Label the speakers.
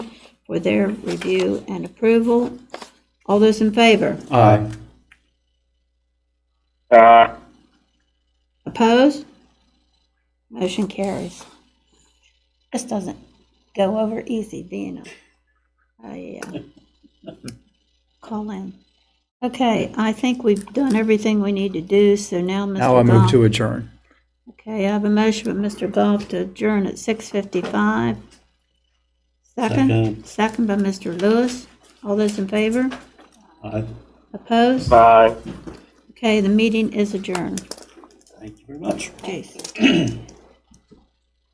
Speaker 1: for their review and approval. All those in favor?
Speaker 2: Aye.
Speaker 3: Aye.
Speaker 1: Opposed? Motion carries. This doesn't go over easy being a, a, uh, call in. Okay, I think we've done everything we need to do, so now Mr.
Speaker 2: Now I move
Speaker 1: Goff-
Speaker 2: to adjourn.
Speaker 1: Okay, I have a motion by Mr. Goff to adjourn at 6:55. Second,
Speaker 4: Second.
Speaker 1: second by Mr. Lewis. All those in favor?
Speaker 4: Aye.
Speaker 1: Opposed?
Speaker 3: Aye.
Speaker 1: Okay, the meeting is adjourned.
Speaker 4: Thank you very much.
Speaker 1: Jason.